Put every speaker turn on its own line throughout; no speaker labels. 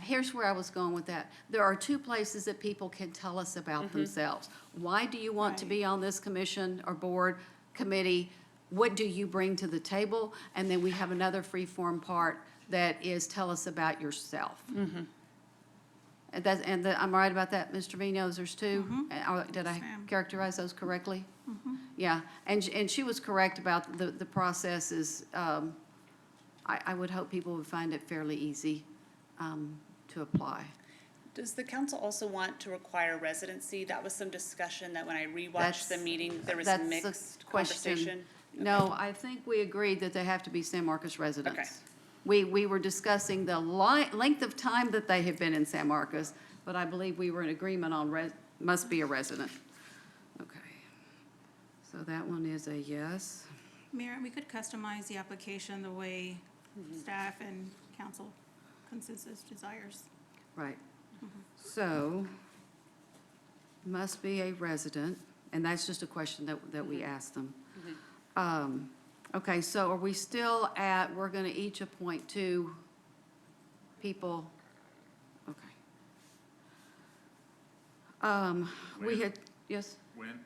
here's where I was going with that. There are two places that people can tell us about
Mm-hmm.
themselves. Why do you want to be on this commission or board, committee? What do you bring to the table? And then we have another free-form part that is tell us about yourself.
Mm.
And that's, and that, I'm right about that, Mr. Vinos, there's two? And, uh, Did I
Mm-hmm. Yes, ma'am. Mm-hmm.
characterize those correctly? Yeah, and, sh- and she was correct about the, the process is, um, I, I would hope people would find it fairly easy, um, to apply.
Does the council also want to require residency? That was some discussion that when I
That's
rewatched the meeting, there was
that's the
mixed
question.
conversation.
No, I think we agreed that they have to be San Marcos residents.
Okay.
We, we were discussing the li- length of time that they have been in San Marcos, but I believe we were in agreement on res, must be a resident. Okay. So that one is a yes.
Mayor, we could customize the application the way staff and council consensus desires.
Right. So, must be a resident, and that's just a question that, that we asked them. Um, Okay, so are we still at, we're gonna each appoint two people? Okay. Um, we
Ma'am?
had, yes?
When?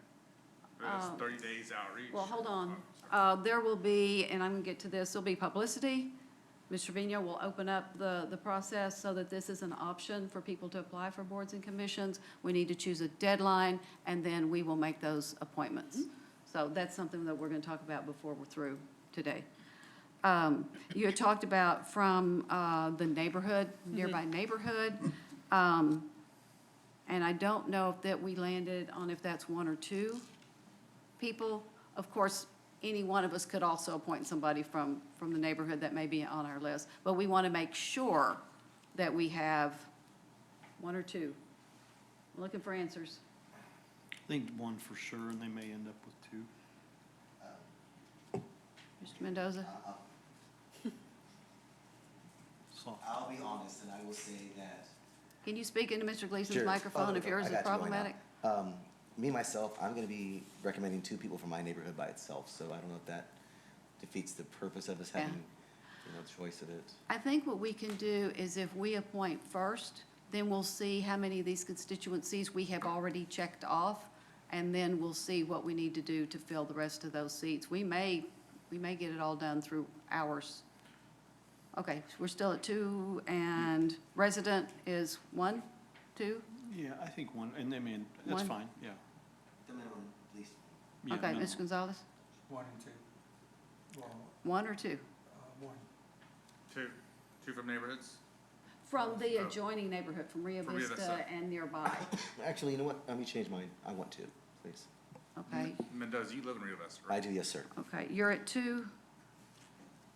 That's
Um,
thirty days outreach.
Well, hold on. Uh, There will be, and I'm going to get to this, there'll be publicity. Ms. Trevino will open up the, the process so that this is an option for people to apply for boards and commissions. We need to choose a deadline, and then we will make those appointments. So that's something that we're going to talk about before we're through today. Um, You had talked about from uh, the neighborhood, nearby neighborhood. Um, And I don't know if that we landed on if that's one or two people. Of course, any one of us could also appoint somebody from, from the neighborhood that may be on our list, but we want to make sure that we have one or two. Looking for answers.
I think one for sure, and they may end up with two.
Mr. Mendoza?
So,
I'll be honest and I will say that.
Can you speak into Mr. Gleason's
Sure.
microphone
Oh,
if yours
I
is
got you, why not?
problematic?
Um, me, myself, I'm gonna be recommending two people from my neighborhood by itself, so I don't know if that defeats the purpose of us
Yeah.
having, you know, choice of it.
I think what we can do is if we appoint first, then we'll see how many of these constituencies we have already checked off, and then we'll see what we need to do to fill the rest of those seats. We may, we may get it all done through hours. Okay, so we're still at two, and resident is one, two?
yeah, I think one, and I mean, that's
One.
fine, yeah.
The minimum, at least.
Yeah,
Okay,
no,
Mr. Gonzalez,
One and two. Well,
one or two?
uh, one.
Two, two from neighborhoods.
From the adjoining neighborhood, from Rio
From Rio
Vista
Vista.
and nearby,
Actually, you know what? Let me change mine. I want two, please.
okay?
Mendoza, you live in Rio Vista,
I
right?
do, yes, sir.
Okay, you're at two.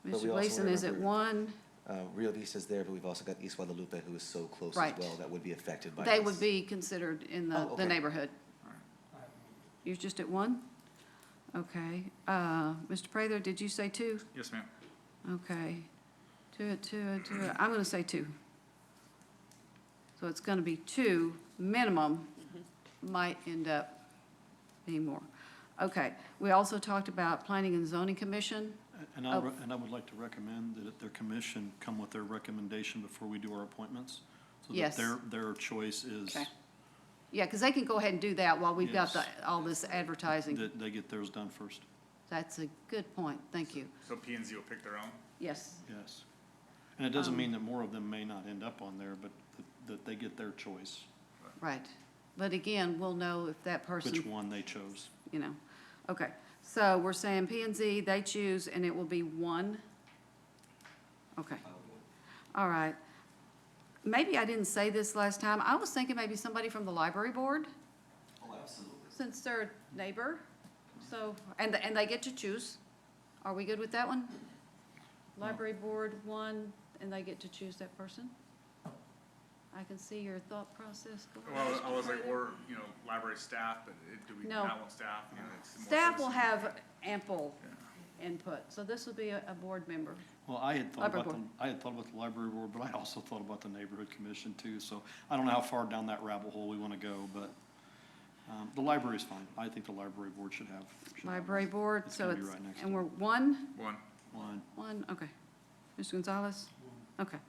But
Mr.
we also
Gleason is at
remember-
one.
Uh, Rio Vista's there, but we've also got East Guadalupe, who is so close as
Right.
well, that would be affected by this.
They would be considered in the,
Oh,
the
okay.
neighborhood.
I have
You're just at one? Okay. Uh, Mr. Prather, did you say two?
Yes, ma'am.
Okay. Two, uh, two, uh, two, uh, I'm gonna say two. So it's gonna be two minimum, might end up being more. Okay, we also talked about Planning and Zoning Commission.
And I,
Oh.
re- and I would like to recommend that their commission come with their recommendation before we do our appointments. So that
Yes.
their, their choice is
Okay. Yeah, because they can go ahead and do that while we've got the,
Yes.
all this advertising.
that they get theirs done first,
That's a good point, thank you.
So P and Z will pick their own.
Yes,
yes. And it
Um,
doesn't mean that more of them may not end up on there, but that- that they get their choice,
right. But again, we'll know if that person.
which one they chose.
you know, okay. So we're saying P and Z, they choose, and it will be one? Okay. All right. Maybe I didn't say this last time. I was thinking maybe somebody from the library board,
Oh, absolutely.
since they're a neighbor, so, and, and they get to choose. Are we good with that one? Library board, one, and they get to choose that person? I can see your thought process going.
Well, I was
Mr.
like,
Prather.
we're, you know, library staff, but it- do we
No.
not want staff? You know, it's more
Staff will
citizen.
have ample input, so this will be a, a board member.
Well, I had thought
Library
about the,
board.
I had thought about the library board, but I also thought about the neighborhood commission too, so I don't know how far down that rabbit hole we wanna go, but, um, the library's fine. I think the library board should have. should have
Library board,
It's
so
gonna be
it's,
right next
and
to
we're one,
One.
One,
one, okay. Mr. Gonzalez? Okay.